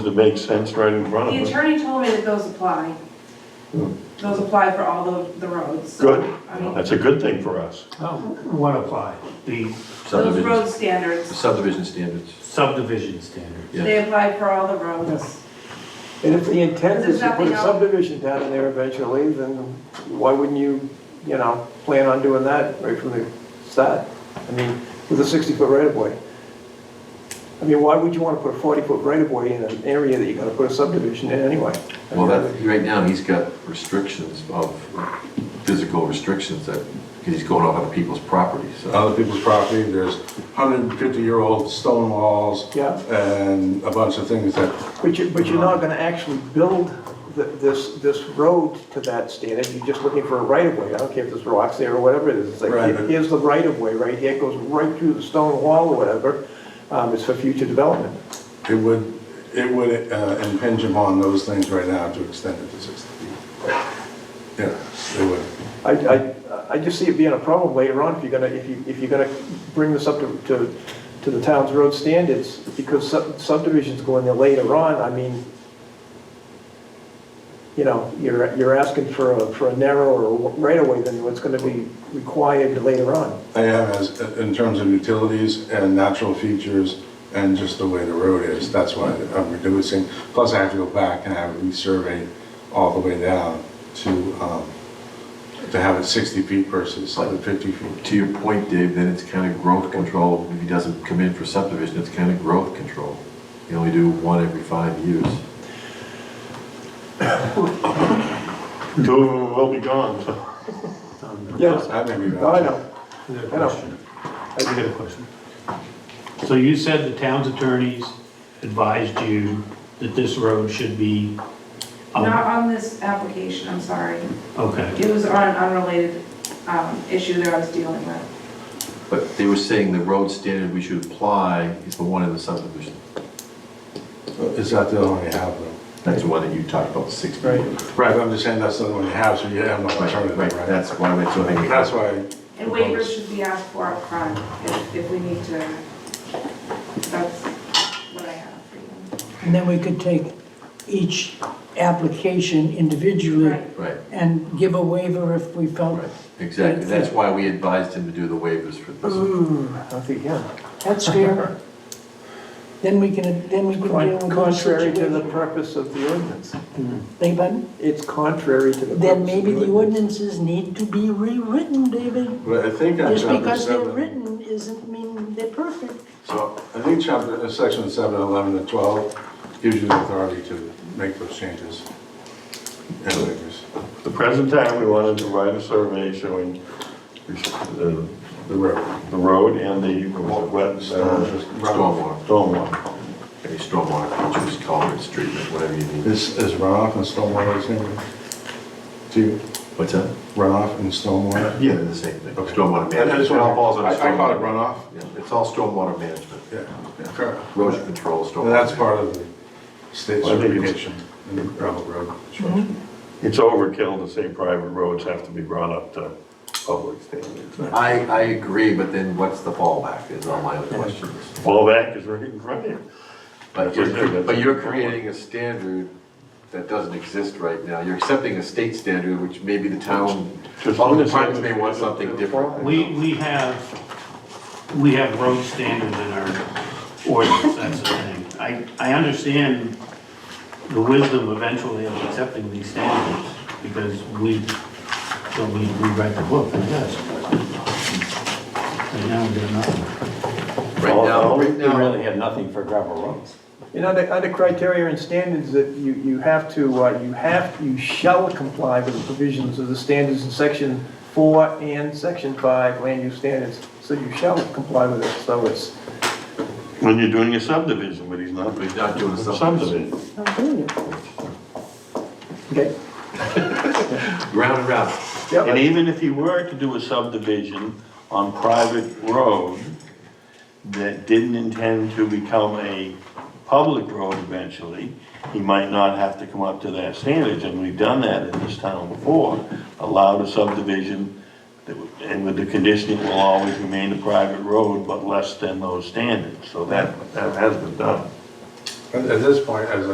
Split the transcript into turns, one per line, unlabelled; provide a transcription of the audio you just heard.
It makes sense right in front
The
of us.
attorney told me that those apply. Those apply for all the, the roads. so,
Good.
I mean,
That's a good thing for us.
Oh, What apply? The
those
Subdivision,
road standards,
subdivision standards.
subdivision standard.
Yeah.
they apply for all the roads.
And if the intent
There's
is to put
nothing
a
else.
subdivision down in there eventually, then why wouldn't you, you know, plan on doing that right from the start? I mean, with a 60-foot right-of-way. I mean, why would you want to put a 40-foot right-of-way in an area that you're going to put a subdivision in anyway? I
Well,
mean,
that, right now, he's got restrictions of, physical restrictions that, because he's going off other people's property, so.
other people's property, there's 150-year-old stone walls.
Yeah.
And a bunch of things that,
But you, but you're not going to actually build th- this, this road to that standard, you're just looking for a right-of-way. I don't care if there's rocks there or whatever it is, it's like,
Right,
here-
but-
here's the right-of-way, right here, it goes right through the stone wall or whatever, Um, it's for future development.
it would, it would uh, impinge upon those things right now to extend it to 60 feet. Yeah, it would.
I, I, I just see it being a problem later on if you're gonna, if you, if you're gonna bring this up to, to, to the town's road standards, because sub- subdivisions go in there later on, I mean, you know, you're, you're asking for a, for a narrower right of way than what's gonna be required later on.
I have, as, uh, in terms of utilities and natural features and just the way the road is, that's why I'm reducing. Plus, I have to go back and have it resurveyed all the way down to, um, to have it 60 feet versus like 50 feet.
To your point, Dave, then it's kind of growth control, if he doesn't come in for subdivision, it's kind of growth control. You only do one every five years.
Two of them will be gone, so.
Yes.
I may be wrong.
I know,
I got a
I know.
question. I got a question. So you said the town's attorneys advised you that this road should be, um,
Not on this application, I'm sorry.
okay,
It was on an unrelated, um, issue that I was dealing with.
But they were saying the road standard we should apply is the one in the subdivision.
Is that the only you have though?
That's the one that you talked about, six feet.
Right.
Right, but I'm just saying that's the only you have, so you have no
Right,
alternative,
right,
right?
that's why we're doing it.
That's why,
And waivers should be asked for up front if, if we need to. That's what I have for you.
And then we could take each application individually
Right.
Right,
and give a waiver if we felt,
right, exactly. That's why we advised him to do the waivers for this.
Ooh, I think, yeah.
that's fair. Then we can, then we can deal with the
Contrary to the
situation.
purpose of the ordinance.
They- but
It's contrary to the purpose.
Then maybe
of
the ordinances need to be rewritten, David.
but I think on
Just
chapter
because they're
seven,
written isn't mean they're perfect.
so I think chapter, uh, section seven, eleven, and twelve gives you the authority to make those changes. And waivers,
The present time, we wanted to write a survey showing the,
the road.
the road and the wet,
Uh-huh.
uh,
Stormwater,
stormwater.
any stormwater features, culverts, treatment, whatever you need.
Is, is runoff and stormwater the same? Do you
What's that?
runoff and stormwater?
Yeah, they're the same thing.
Okay.
Stormwater
I- I
management.
just
It all falls
want,
under
I I call it
stormwater.
runoff.
Yeah, It's all stormwater management,
Yeah, correct.
erosion control, stormwater.
And that's part of the state
Well, I think it's-
certification in gravel road construction.
It's overkill to say private roads have to be brought up to public standards.
I, I agree, but then what's the fallback is all my other questions.
Fall back is right in front of you.
But you're, but you're creating a standard that doesn't exist right now. You're accepting a state standard, which maybe the town,
Just-
all the departments may want something different.
we, we have, we have road standards in our ordinance, that's the thing. I, I understand the wisdom eventually of accepting these standards, because we, so we rewrite the book, I guess. Right now, we got nothing.
Right now, right
We really
now,
have nothing for gravel roads.
And under, under criteria and standards that you, you have to, uh, you have, you shall comply with the provisions of the standards in section four and section five land use standards. So you shall comply with it, so it's,
When you're doing a subdivision, but he's not.
He's not doing a subdivision.
okay?
round and round.
And
Yep,
even if he were to do a subdivision on private road that didn't intend to become a public road eventually, he might not have to come up to that standards, and we've done that in this town before. Allowed a subdivision, that would- and with the condition it will always remain a private road, but less than those standards, so that, that has been done.
At at this point, as I